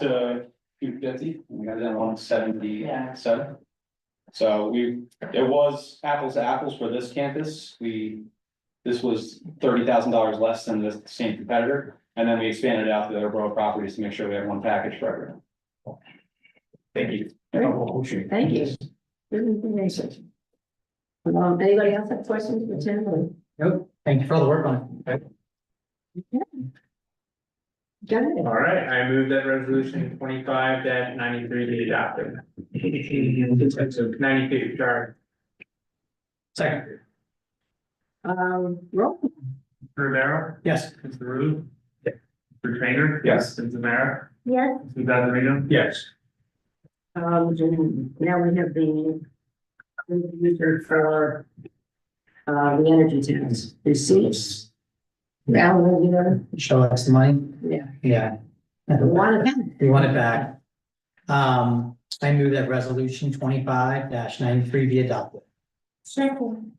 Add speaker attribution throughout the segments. Speaker 1: to two fifty, we got it down one seventy
Speaker 2: Yeah.
Speaker 1: seven. So we, it was apples to apples for this campus, we, this was thirty thousand dollars less than the same competitor. And then we expanded out to the other borough properties to make sure we have one package for everyone. Thank you.
Speaker 2: Thank you. Good information. Um, anybody else have questions for Tim?
Speaker 3: Nope, thank you for all the work on it.
Speaker 2: Got it.
Speaker 4: All right, I move that resolution twenty-five ninety-three be adopted. Ninety-two, sorry.
Speaker 3: Second,
Speaker 2: Um, roll.
Speaker 4: Rivera,
Speaker 3: yes,
Speaker 4: Mr. Rude. Mr. Trainer.
Speaker 1: Yes.
Speaker 4: Mr. Zamara.
Speaker 2: Yes.
Speaker 4: Mr. Zazarino.
Speaker 1: Yes.
Speaker 2: Um, and now we have the user for uh, the energy tax receipts. Alan, you know,
Speaker 3: show us the money,
Speaker 2: yeah,
Speaker 3: yeah.
Speaker 2: one of them.
Speaker 3: We want it back. Um, I move that resolution twenty-five ninety-three be adopted.
Speaker 2: Second.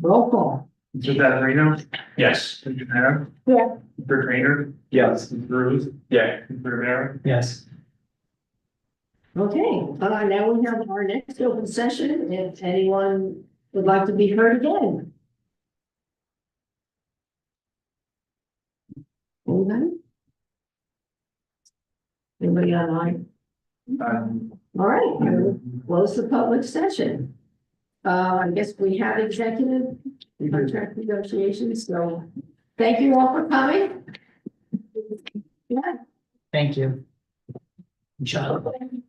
Speaker 2: Roll call.
Speaker 4: Mr. Zazarino. Yes. Mr. Zamara.
Speaker 2: Yeah.
Speaker 4: Mr. Trainer.
Speaker 1: Yes.
Speaker 4: Mr. Rude. Yeah. Mr. Rivera.
Speaker 3: Yes,
Speaker 2: Okay, uh, now we have our next open session. If anyone would like to be heard again. Anybody? Anybody online?
Speaker 4: Um,
Speaker 2: All right, we'll close the public session. Uh, I guess we have executive contract negotiations, so thank you all for coming. Yeah.
Speaker 3: thank you. Good job.
Speaker 2: Thank you.